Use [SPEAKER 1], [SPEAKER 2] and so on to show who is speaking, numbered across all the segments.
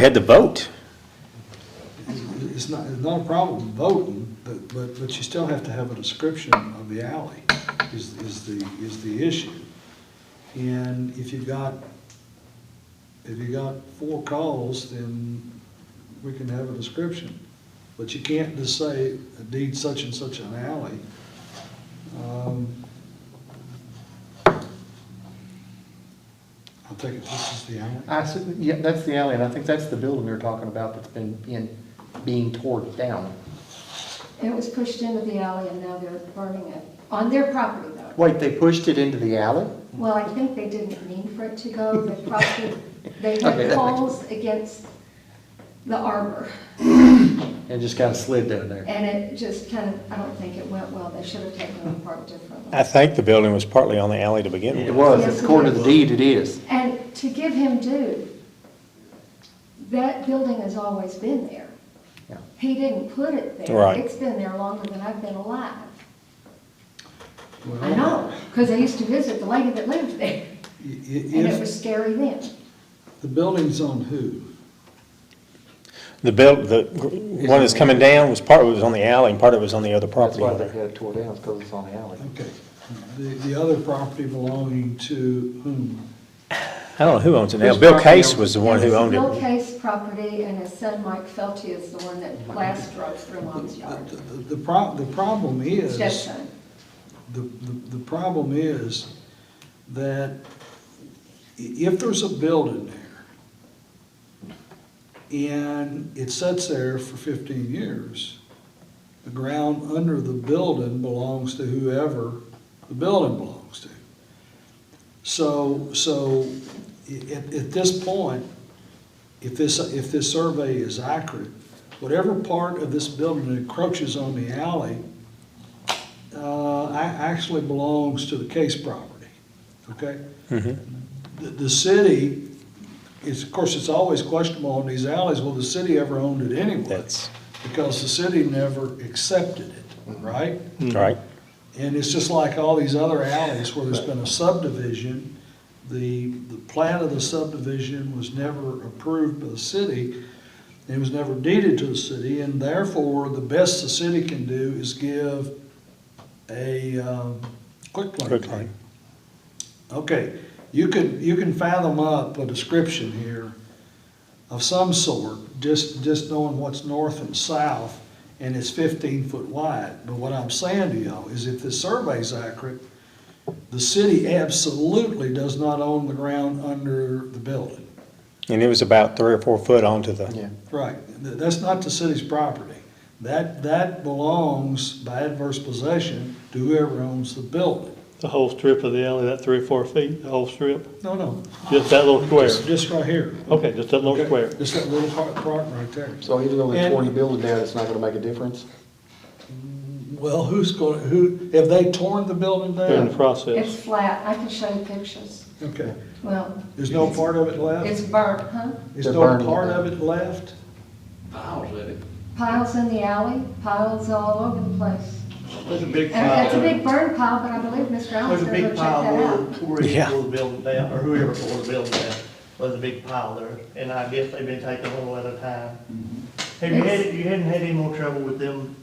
[SPEAKER 1] We had to vote.
[SPEAKER 2] It's not, it's not a problem voting, but, but, but you still have to have a description of the alley is, is the, is the issue. And if you've got, if you got four calls, then we can have a description. But you can't just say a deed such and such an alley. Um, I think this is the alley.
[SPEAKER 3] I, s- yeah, that's the alley, and I think that's the building they're talking about that's been, being, being torn down.
[SPEAKER 4] It was pushed into the alley and now they're burning it, on their property though.
[SPEAKER 3] Wait, they pushed it into the alley?
[SPEAKER 4] Well, I think they didn't mean for it to go, they probably, they
[SPEAKER 3] Okay,
[SPEAKER 4] had
[SPEAKER 3] that
[SPEAKER 4] poles against the arbor.
[SPEAKER 3] And just kind of slid down there.
[SPEAKER 4] And it just kind of, I don't think it went well, they should have taken it apart differently.
[SPEAKER 1] I think the building was partly on the alley to begin
[SPEAKER 3] It
[SPEAKER 1] with.
[SPEAKER 3] was, according to the deed, it is.
[SPEAKER 4] And to give him due, that building has always been there.
[SPEAKER 3] Yeah.
[SPEAKER 4] He didn't put it there.
[SPEAKER 1] Right.
[SPEAKER 4] It's been there longer than I've been alive.
[SPEAKER 2] Well,
[SPEAKER 4] I know, because I used to visit the lady that lived
[SPEAKER 2] i-
[SPEAKER 4] there,
[SPEAKER 2] i-
[SPEAKER 4] and it
[SPEAKER 2] if-
[SPEAKER 4] was scary then.
[SPEAKER 2] the building's on who?
[SPEAKER 1] The build, the gr- one that's coming down was part of it was on the alley and part of it was on the other
[SPEAKER 3] That's
[SPEAKER 1] property
[SPEAKER 3] why they
[SPEAKER 1] owner.
[SPEAKER 3] had it tore down, because it's on the alley.
[SPEAKER 2] Okay, the, the other property belonging to whom?
[SPEAKER 1] I don't know who owns it now.
[SPEAKER 2] Whose
[SPEAKER 1] Bill
[SPEAKER 2] property
[SPEAKER 1] Case
[SPEAKER 2] owns-
[SPEAKER 1] was the one who
[SPEAKER 4] It's
[SPEAKER 1] owned
[SPEAKER 4] Bill
[SPEAKER 1] it.
[SPEAKER 4] Case property, and his son Mike Felty is the one that last drove through mom's yard,
[SPEAKER 2] Uh, The, the prob, the problem is, the,
[SPEAKER 4] stepson.
[SPEAKER 2] the, the problem is that i- if there's a building there and it sits there for fifteen years, the ground under the building belongs to whoever the building belongs to. So, so i- at, at this point, if this, if this survey is accurate, whatever part of this building that encroaches on the alley, uh, a- actually belongs to the Case property, okay? The, the city, is, of course, it's always questionable on these alleys, well, the city ever owned it anyway?
[SPEAKER 1] That's
[SPEAKER 2] Because the city never accepted it, right?
[SPEAKER 1] right.
[SPEAKER 2] And it's just like all these other alleys where there's been a subdivision, the, the plan of the subdivision was never approved by the city, and it was never deeded to the city, and therefore, the best the city can do is give a, um, quick claim.
[SPEAKER 1] Quick claim.
[SPEAKER 2] Okay, you could, you can fathom up a description here of some sort, just, just knowing what's north and south, and it's fifteen foot wide. But what I'm saying to y'all is if this survey's accurate, the city absolutely does not own the ground under the building.
[SPEAKER 1] And it was about three or four foot onto
[SPEAKER 3] Yeah.
[SPEAKER 1] the,
[SPEAKER 2] Right, Th- that's not the city's property. That, that belongs by adverse possession to whoever owns the building.
[SPEAKER 5] The whole strip of the alley, that three or four feet, the whole strip,
[SPEAKER 2] No, no,
[SPEAKER 5] just that little square?
[SPEAKER 2] just, just right here.
[SPEAKER 5] Okay, just that little square.
[SPEAKER 2] Just that little part, part right there.
[SPEAKER 3] So even though
[SPEAKER 2] they tore the
[SPEAKER 3] building down, it's not gonna make a difference?
[SPEAKER 2] Well, who's going, who, have they torn the building
[SPEAKER 5] They're in the
[SPEAKER 2] down?
[SPEAKER 5] process.
[SPEAKER 4] It's flat, I can show you pictures.
[SPEAKER 2] Okay,
[SPEAKER 4] Well,
[SPEAKER 2] there's no part of it
[SPEAKER 4] it's
[SPEAKER 2] left?
[SPEAKER 4] burnt, huh?
[SPEAKER 2] There's
[SPEAKER 3] They're
[SPEAKER 2] no
[SPEAKER 3] burning it
[SPEAKER 2] part
[SPEAKER 3] down.
[SPEAKER 2] of it left?
[SPEAKER 6] Piles of it.
[SPEAKER 4] Piles in the alley, piles all over the place.
[SPEAKER 7] There's a big
[SPEAKER 4] And
[SPEAKER 7] pile.
[SPEAKER 4] that's a big burn pile, but I believe Mr.
[SPEAKER 7] There's
[SPEAKER 4] Allen's
[SPEAKER 7] a
[SPEAKER 4] gonna go
[SPEAKER 7] big
[SPEAKER 4] check
[SPEAKER 7] pile
[SPEAKER 4] that out.
[SPEAKER 7] where, where he
[SPEAKER 1] Yeah.
[SPEAKER 7] tore the building down, or whoever tore the building down, was a big pile there, and I guess they've been taking a little at a time.
[SPEAKER 4] Mm-hmm.
[SPEAKER 7] Have you had, you hadn't had any more trouble with them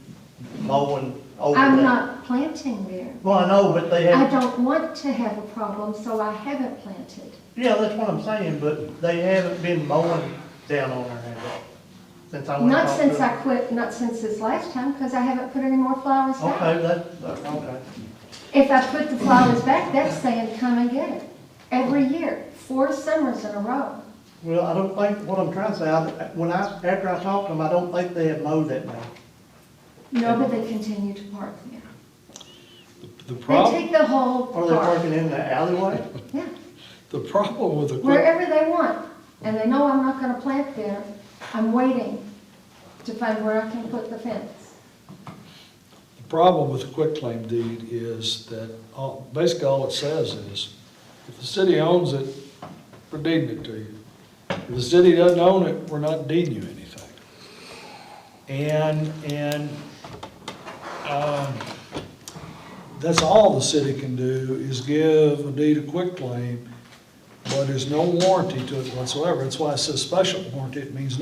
[SPEAKER 7] mowing over that?
[SPEAKER 4] I'm not planting there.
[SPEAKER 7] Well, I know, but they
[SPEAKER 4] I
[SPEAKER 7] had,
[SPEAKER 4] don't want to have a problem, so I haven't planted.
[SPEAKER 7] yeah, that's what I'm saying, but they haven't been mowing down on there have they? Since I went. and
[SPEAKER 4] Not
[SPEAKER 7] talked to
[SPEAKER 4] since I
[SPEAKER 7] them.
[SPEAKER 4] quit, not since this last time, because I haven't put any more flowers
[SPEAKER 7] Okay,
[SPEAKER 4] back.
[SPEAKER 7] that, that- okay.
[SPEAKER 4] If I put the flowers back, that's saying, come and get it. Every year, four summers in a row.
[SPEAKER 7] Well, I don't think, what I'm trying to say, I, when I, after I talked to them, I don't think they had mowed that much.
[SPEAKER 4] No, but they continue to park there.
[SPEAKER 2] The
[SPEAKER 4] They
[SPEAKER 2] problem,
[SPEAKER 4] take the whole
[SPEAKER 7] Are they
[SPEAKER 4] park,
[SPEAKER 7] parking in the alleyway?
[SPEAKER 4] yeah,
[SPEAKER 2] the problem with the quick,
[SPEAKER 4] wherever they want. And they know I'm not gonna plant there. I'm waiting to find where I can put the fence.
[SPEAKER 2] the problem with the quitclaim deed is that, all- basically all it says is, if the city owns it, we're deeding it to you. If the city doesn't own it, we're not deeding you anything. And, and, um, that's all the city can do is give a deed of quitclaim but there's no warranty to it whatsoever. That's why it says special warranty. It means